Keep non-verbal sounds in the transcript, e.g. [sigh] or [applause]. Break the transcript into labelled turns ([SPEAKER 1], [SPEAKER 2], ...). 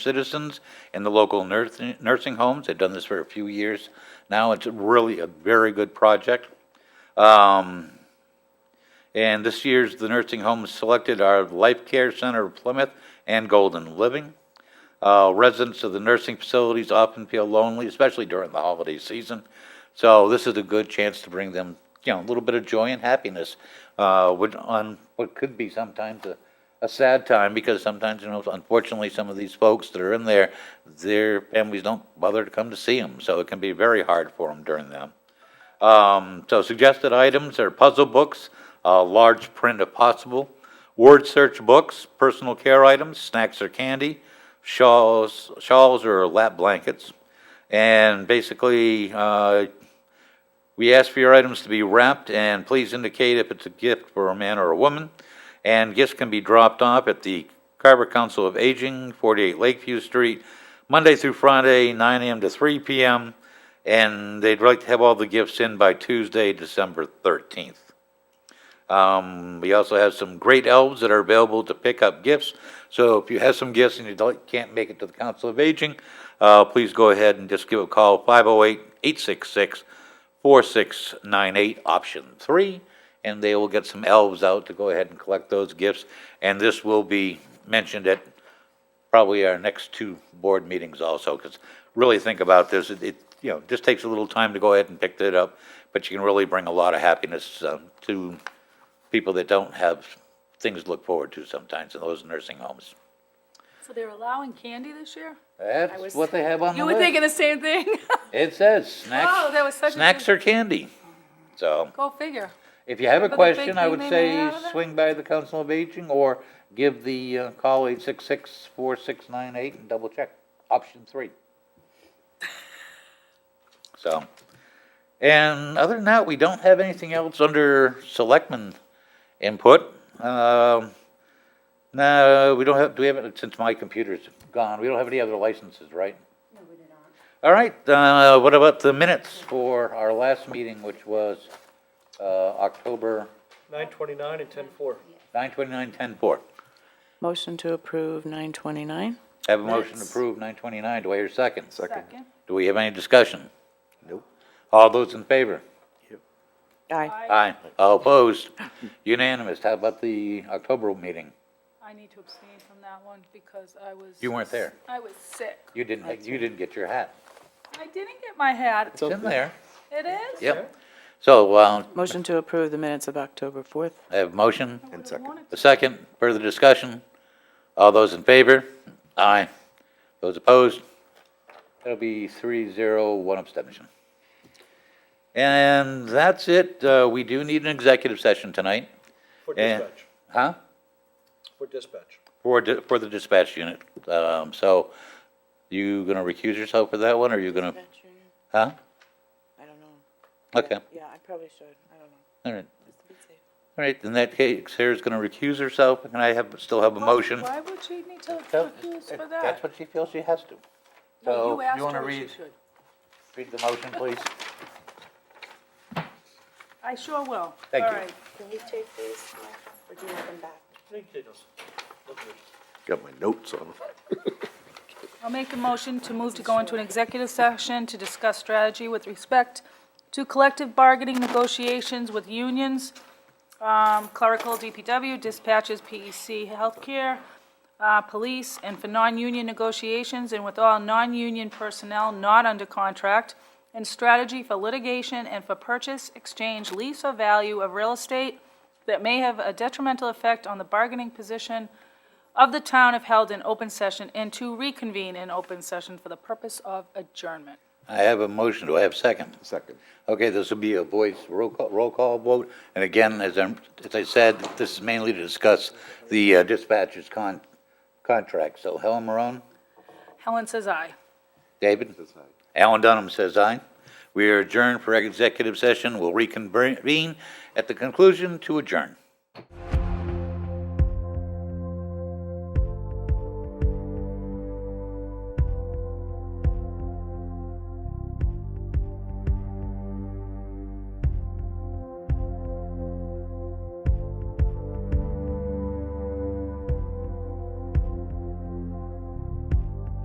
[SPEAKER 1] citizens in the local nursing nursing homes. They've done this for a few years now. It's really a very good project. Um, And this year's, the nursing homes selected are Life Care Center of Plymouth and Golden Living. Uh, Residents of the nursing facilities often feel lonely, especially during the holiday season. So this is a good chance to bring them, you know, a little bit of joy and happiness uh, would- on what could be sometimes a a sad time, because sometimes, you know, unfortunately, some of these folks that are in there, their families don't bother to come to see them, so it can be very hard for them during them. Um, so suggested items are puzzle books, uh, large print if possible, word search books, personal care items, snacks or candy, shawls, shawls or lap blankets. And basically, uh, we ask for your items to be wrapped and please indicate if it's a gift for a man or a woman. And gifts can be dropped off at the Carver Council of Aging, 48 Lakeview Street, Monday through Friday, 9 AM to 3 PM. And they'd like to have all the gifts in by Tuesday, December 13th. Um, we also have some great elves that are available to pick up gifts. So if you have some gifts and you don't- can't make it to the Council of Aging, uh, please go ahead and just give a call, 508-866-4698, option three, and they will get some elves out to go ahead and collect those gifts. And this will be mentioned at probably our next two board meetings also, because really think about this, it, it, you know, just takes a little time to go ahead and pick that up, but you can really bring a lot of happiness, um, to people that don't have things to look forward to sometimes in those nursing homes.
[SPEAKER 2] So they're allowing candy this year?
[SPEAKER 1] That's
[SPEAKER 2] was-
[SPEAKER 1] what they have on the
[SPEAKER 2] You were thinking
[SPEAKER 1] list.
[SPEAKER 2] the same thing?
[SPEAKER 1] It says snacks.
[SPEAKER 2] Oh, that was such a
[SPEAKER 1] Snacks or candy. So,
[SPEAKER 2] Go figure.
[SPEAKER 1] if you have a
[SPEAKER 2] big
[SPEAKER 1] question, I
[SPEAKER 2] thing
[SPEAKER 1] would
[SPEAKER 2] they made
[SPEAKER 1] say
[SPEAKER 2] out of that?
[SPEAKER 1] swing by the Council of Aging or give the, uh, call eight six six four six nine eight and double check, option three. So, and other than that, we don't have anything else under selectmen input. Um, no, we don't have, do we have, since my computer's gone, we don't have any other licenses, right? No, we do not. All right, uh, what about the minutes for our last meeting, which was, uh, October
[SPEAKER 3] Nine twenty-nine and ten four.
[SPEAKER 1] nine twenty-nine, ten four?
[SPEAKER 4] Motion to approve 929.
[SPEAKER 1] Have a motion to
[SPEAKER 4] Minutes.
[SPEAKER 1] approve nine twenty-nine, do I hear a second?
[SPEAKER 5] Second.
[SPEAKER 2] Second.
[SPEAKER 1] Do we have any discussion?
[SPEAKER 5] Nope.
[SPEAKER 1] All those in favor?
[SPEAKER 4] Aye.
[SPEAKER 1] Aye. All opposed? [laughs] Unanimous, how about the October meeting?
[SPEAKER 2] I need to abstain from that one because I was.
[SPEAKER 1] You weren't there.
[SPEAKER 2] I was sick.
[SPEAKER 1] You didn't, you didn't get your hat.
[SPEAKER 2] I didn't get my hat.
[SPEAKER 1] It's in there,
[SPEAKER 2] It is?
[SPEAKER 1] yep. So, uh,
[SPEAKER 4] Motion to approve the minutes of October 4th.
[SPEAKER 1] I have a motion?
[SPEAKER 2] Would've
[SPEAKER 5] second.
[SPEAKER 2] wanted
[SPEAKER 1] The second, further discussion? All those in favor? Aye. Those opposed? That'll be three, zero, one abstention. And that's it. Uh, we do need an executive session tonight.
[SPEAKER 3] For
[SPEAKER 1] And-
[SPEAKER 3] dispatch,
[SPEAKER 1] Huh?
[SPEAKER 3] for dispatch.
[SPEAKER 1] For, di- for the dispatch unit. Um, so you gonna recuse yourself for that one, or you gonna, huh?
[SPEAKER 4] I don't know.
[SPEAKER 1] Okay,
[SPEAKER 4] Yeah, I probably should. I don't know.
[SPEAKER 1] all right.
[SPEAKER 4] Just to be safe.
[SPEAKER 1] All right, in that case, Sarah's gonna recuse herself, and I have, still have a motion.
[SPEAKER 2] Why would she need to
[SPEAKER 1] So,
[SPEAKER 2] accuse for
[SPEAKER 1] That's
[SPEAKER 2] that?
[SPEAKER 1] what she feels she has to.
[SPEAKER 2] No,
[SPEAKER 1] So,
[SPEAKER 2] you
[SPEAKER 1] if you
[SPEAKER 2] asked
[SPEAKER 1] wanna
[SPEAKER 2] her if she
[SPEAKER 1] read,
[SPEAKER 2] should.
[SPEAKER 1] read the motion, please?
[SPEAKER 2] I sure will.
[SPEAKER 1] Thank
[SPEAKER 2] All
[SPEAKER 1] you.
[SPEAKER 2] right.
[SPEAKER 6] Can you take these, Michael, or do you want them back?
[SPEAKER 5] Got my notes on.
[SPEAKER 2] I'll make a motion to move to go into an executive session to discuss strategy with respect to collective bargaining negotiations with unions, um, clerical, DPW, dispatches, PEC, healthcare, uh, police, and for non-union negotiations and with all non-union personnel not under contract, and strategy for litigation and for purchase, exchange, lease, or value of real estate that may have a detrimental effect on the bargaining position of the town if held in open session and to reconvene in open session for the purpose of adjournment.
[SPEAKER 1] I have a motion, do I have a second?
[SPEAKER 5] [laughs] Second.
[SPEAKER 1] Okay, this will be a voice roll call, roll call vote, and again, as I'm, as I said, this is mainly to discuss the uh, dispatcher's con, contract, so Helen Marone,
[SPEAKER 2] Helen says aye.
[SPEAKER 1] David? Alan Dunham says aye. We are adjourned for executive session, we'll reconvene at the conclusion to adjourn.